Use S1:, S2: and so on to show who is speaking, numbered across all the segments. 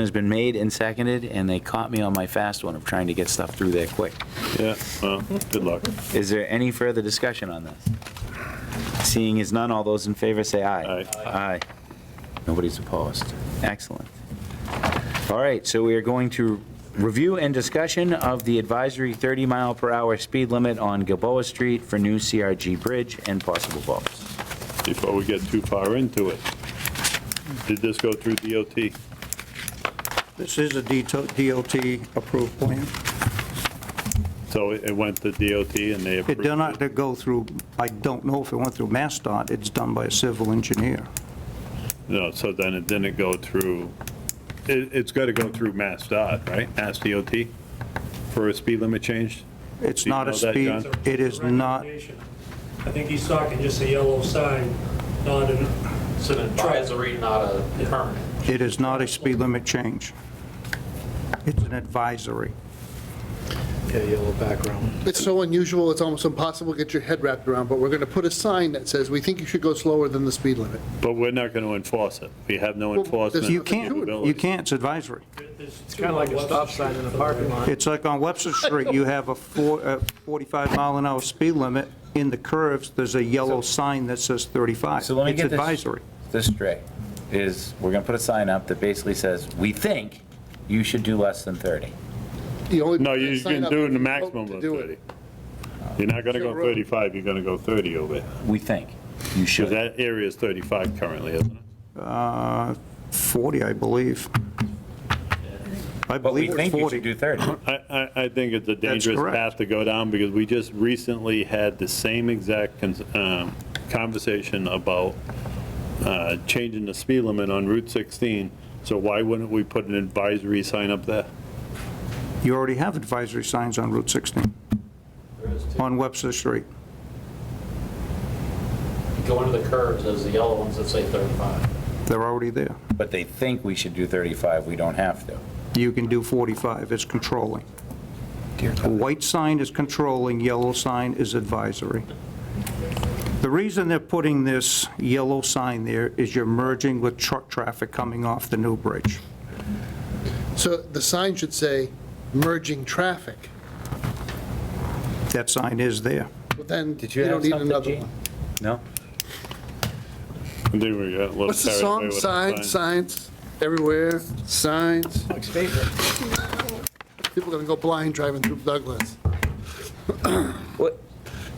S1: has been made and seconded, and they caught me on my fast one of trying to get stuff through there quick.
S2: Yeah, well, good luck.
S1: Is there any further discussion on this? Seeing as none, all those in favor say aye.
S2: Aye.
S1: Aye. Nobody's opposed. Excellent. All right, so we are going to review and discussion of the advisory 30 mile per hour speed limit on Gilboa Street for new CRG bridge and possible votes.
S2: Before we get too far into it, did this go through DOT?
S3: This is a DOT-approved plan.
S2: So it it went to DOT and they
S3: It
S2: approved
S3: did not
S2: it?
S3: go through, I don't know if it went through MassDOT, it's done by a civil engineer.
S2: No, so then it didn't go through, it, it's got to go through Mass Dot, right? Mass DOT for a speed limit change?
S3: It's
S2: Do you
S3: not a
S2: know that,
S3: speed,
S2: John?
S3: it is not,
S4: Recommendation. I think he's talking just a yellow sign, not an,
S5: It's an advisory, not a permanent.
S3: it is not a speed limit change. It's an advisory.
S6: Yeah, yellow background.
S7: It's so unusual, it's almost impossible to get your head wrapped around, but we're going to put a sign that says, we think you should go slower than the speed limit.
S2: But we're not going to enforce it. We have no
S7: Well,
S2: enforcement.
S7: there's-
S3: You can't, you can't, it's advisory.
S4: it's
S5: Kind of like a stop sign in a parking lot.
S3: It's like on Webster Street, you have a four- a 45 mile an hour speed limit. In the curves, there's a yellow sign that says 35.
S1: So let me get
S3: It's
S1: this-
S3: advisory.
S1: This straight is, we're going to put a sign up that basically says, we think you should do less than 30.
S7: The only
S2: No, you
S7: sign
S2: can
S7: up
S2: do it
S7: if
S2: the
S7: you
S2: maximum
S7: vote
S2: of
S7: to do it.
S2: 30. You're not going to go
S7: Sure, road.
S2: 35, you're going to go 30 over it.
S1: We think you should.
S2: Because that area is 35 currently, isn't it?
S3: Uh, 40, I believe. I
S1: But we
S3: believe it's
S1: think you should
S3: 40.
S1: do 30.
S2: I, I, I think it's a dangerous
S3: correct.
S2: path to go down, because we just recently had the same exact cons- um, conversation about uh, changing the speed limit on Route 16, so why wouldn't we put an advisory sign up there?
S3: You already have advisory signs on Route 16, on Webster Street.
S5: Go into the curves, there's the yellow ones that say 35.
S3: They're already there.
S1: But they think we should do 35, we don't have to.
S3: You can do 45, it's controlling. A white sign is controlling, yellow sign is advisory. The reason they're putting this yellow sign there is you're merging with truck traffic coming off the new bridge.
S7: So the sign should say, merging traffic,
S3: That sign is there.
S7: but then
S1: Did you
S7: you
S1: have
S7: don't need
S1: something,
S7: another
S1: Gene?
S7: one.
S1: No?
S2: I think we got a little
S7: What's the
S2: carried away
S7: song?
S2: with the
S7: Signs,
S2: sign.
S7: signs, everywhere, signs. People are going to go blind driving through Douglas.
S1: What?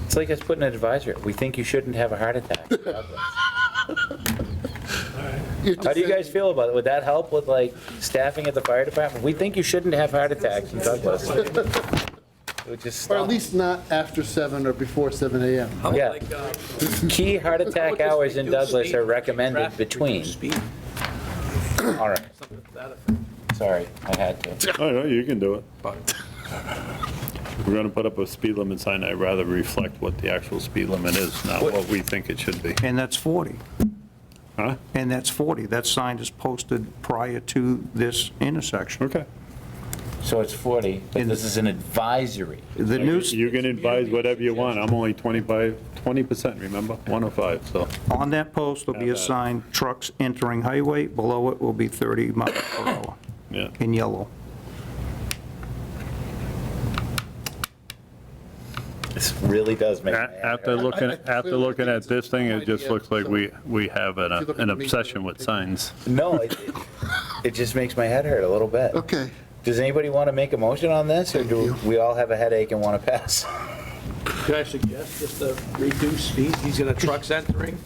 S1: It's like us putting an advisory, we think you shouldn't have a heart attack. How do you guys feel about it? Would that help with like staffing at the fire department? We think you shouldn't have heart attacks in Douglas. It would just
S7: Or at
S1: stop.
S7: least not after 7 or before 7 a.m.
S1: Yeah. Key heart attack hours in Douglas are recommended between. All right. Sorry, I had to.
S2: Oh, no, you can do it. We're going to put up a speed limit sign, I'd rather reflect what the actual speed limit is, not what we think it should be.
S3: And that's 40.
S2: Huh?
S3: And that's 40. That sign is posted prior to this intersection.
S2: Okay.
S1: So it's 40, but this is an advisory.
S3: The new,
S2: You can advise whatever you want, I'm only 25, 20%, remember? 105, so.
S3: on that post will be a sign, trucks entering highway, below it will be 30 miles per hour
S2: Yeah,
S3: in yellow.
S1: This really does make. my head
S2: A- after
S1: hurt.
S2: looking, after looking at this thing, it just looks like we, we have an
S7: If you look
S2: an
S7: at me-
S2: obsession with signs.
S1: No, it, it- it just makes my head hurt a little bit.
S7: Okay.
S1: Does anybody want to make a motion on this, or do we all have a headache and want to pass?
S6: Could I suggest just to reduce speed? He's got a trucks entering,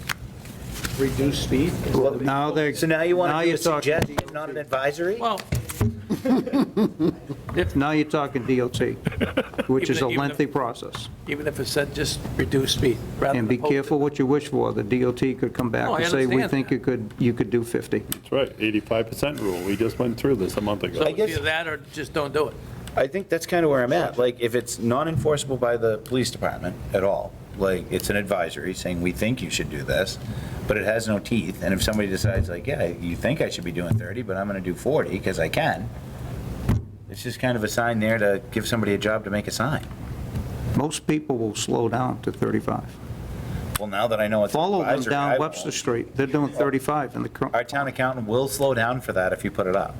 S6: reduce speed.
S3: Now they're,
S1: So now you
S3: Now
S1: want to do
S3: you're
S1: a
S3: talking.
S1: suggestion, not an advisory?
S6: Well,
S3: now you're talking DOT, which is a
S6: Even- even-
S3: lengthy process.
S6: even if it said just reduce speed. rather
S3: And
S6: than
S3: be
S6: post it.
S3: careful what you wish for. The DOT could come back
S6: No, I
S3: and say, we
S6: understand
S3: think
S6: that.
S3: you could, you could do 50.
S2: That's right, 85% rule, we just went through this a month
S6: So
S2: ago.
S1: I
S6: it's
S1: guess-
S6: either that or just don't do it.
S1: I think that's kind of where I'm at. Like, if it's non-enforceable by the police department at all, like, it's an advisory saying, we think you should do this, but it has no teeth, and if somebody decides like, yeah, you think I should be doing 30, but I'm going to do 40 because I can, it's just kind of a sign there to give somebody a job to make a sign.
S3: Most people will slow down to 35.
S1: Well, now that I know it's
S3: Follow them
S1: advisory, I
S3: down
S1: won't.
S3: Webster Street. They're doing 35 in the current.
S1: Our town accountant will slow down for that if you put it up.